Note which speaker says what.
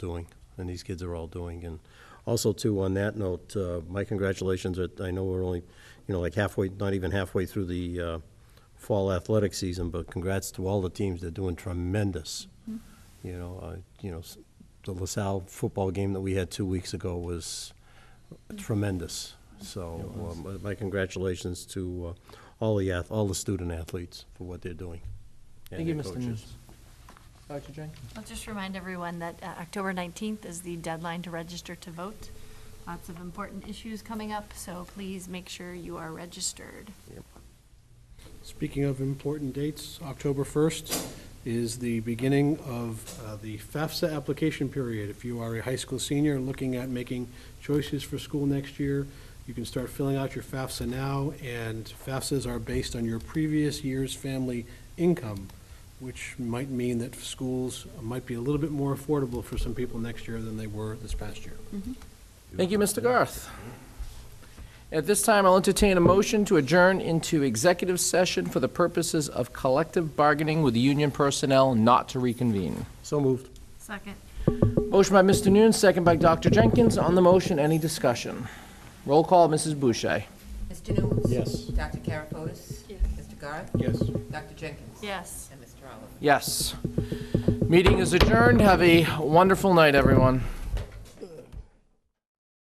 Speaker 1: doing, and these kids are all doing. And also, too, on that note, uh, my congratulations, that I know we're only, you know, like halfway, not even halfway through the uh, fall athletic season, but congrats to all the teams, they're doing tremendous.
Speaker 2: Mm-hmm.
Speaker 1: You know, uh, you know, s- the LaSalle football game that we had two weeks ago was tremendous. So um, my congratulations to uh, all the, ath- all the student athletes for what they're doing. and
Speaker 2: Thank you,
Speaker 1: their
Speaker 2: Mr.
Speaker 1: coaches.
Speaker 2: Moose. Dr. Jenkins?
Speaker 3: I'll just remind everyone that uh, October 19th is the deadline to register to vote. Lots of important issues coming up, so please make sure you are registered.
Speaker 4: Speaking of important dates, October 1st is the beginning of uh, the FAFSA application period. If you are a high school senior and looking at making choices for school next year, you can start filling out your FAFSA now, and FAFSAs are based on your previous year's family income, which might mean that schools might be a little bit more affordable for some people next year than they were this past year.
Speaker 2: Thank you, Mr. Garth. At this time, I'll entertain a motion to adjourn into executive session for the purposes of collective bargaining with union personnel not to reconvene.
Speaker 1: So moved.
Speaker 3: Second.
Speaker 2: Motion by Mr. Noon, second by Dr. Jenkins. On the motion, any discussion? Roll call, Mrs. Boucher.
Speaker 5: Mr. News?
Speaker 1: Yes.
Speaker 5: Dr. Karafotis?
Speaker 3: Yes.
Speaker 5: Mr. Garth?
Speaker 4: Yes.
Speaker 5: Dr. Jenkins?
Speaker 3: Yes.
Speaker 5: And Mr. Oliver?
Speaker 2: Yes. Meeting is adjourned. Have a wonderful night, everyone.